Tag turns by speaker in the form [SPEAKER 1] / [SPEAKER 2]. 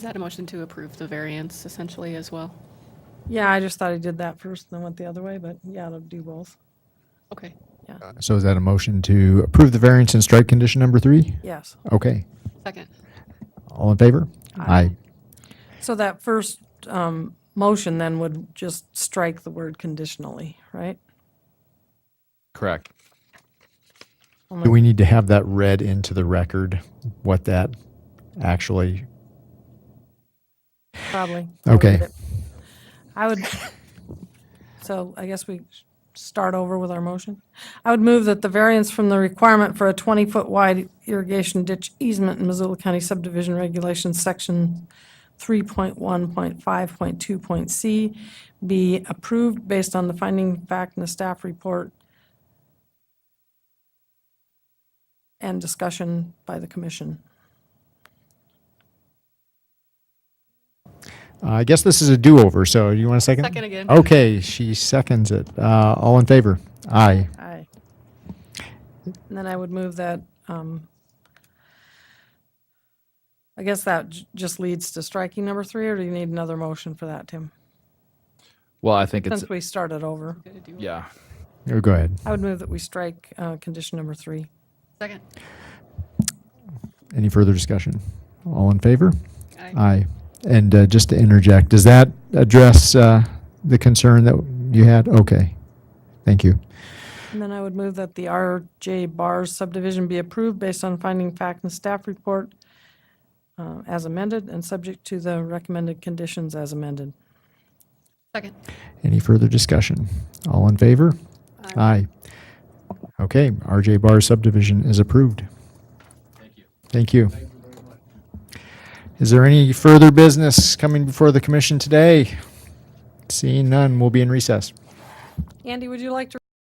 [SPEAKER 1] Is that a motion to approve the variance essentially as well?
[SPEAKER 2] Yeah, I just thought I did that first and then went the other way, but yeah, I'll do both.
[SPEAKER 1] Okay.
[SPEAKER 3] So is that a motion to approve the variance and strike condition number three?
[SPEAKER 2] Yes.
[SPEAKER 3] Okay.
[SPEAKER 1] Second.
[SPEAKER 3] All in favor?
[SPEAKER 2] Aye. So that first um, motion then would just strike the word conditionally, right?
[SPEAKER 4] Correct.
[SPEAKER 3] Do we need to have that read into the record, what that actually,
[SPEAKER 2] Probably.
[SPEAKER 3] Okay.
[SPEAKER 2] I would, so I guess we sh- start over with our motion. I would move that the variance from the requirement for a 20-foot wide irrigation ditch easement in Missoula County subdivision regulations, section 3.1.5.2. C, be approved based on the finding fact in the staff report and discussion by the commission.
[SPEAKER 3] I guess this is a do-over, so you want a second?
[SPEAKER 1] Second again.
[SPEAKER 3] Okay, she seconds it. Uh, All in favor? Aye.
[SPEAKER 2] Aye. And then I would move that, um, I guess that j- just leads to striking number three, or do you need another motion for that, Tim?
[SPEAKER 4] Well, I think it's
[SPEAKER 2] Since we started over,
[SPEAKER 4] yeah.
[SPEAKER 3] Oh, Go ahead.
[SPEAKER 2] I would move that we strike, uh, condition number three.
[SPEAKER 1] Second.
[SPEAKER 3] Any further discussion? All in favor?
[SPEAKER 1] Aye.
[SPEAKER 3] Aye. And uh, just to interject, does that address uh, the concern that you had? Okay. Thank you.
[SPEAKER 2] And then I would move that the RJ Bars subdivision be approved based on finding fact and staff report, uh, as amended and subject to the recommended conditions as amended.
[SPEAKER 1] Second.
[SPEAKER 3] Any further discussion? All in favor? Aye. Okay, RJ Bar subdivision is approved. Thank you. Thank you. Is there any further business coming before the commission today? Seeing none, we'll be in recess.
[SPEAKER 2] Andy, would you like to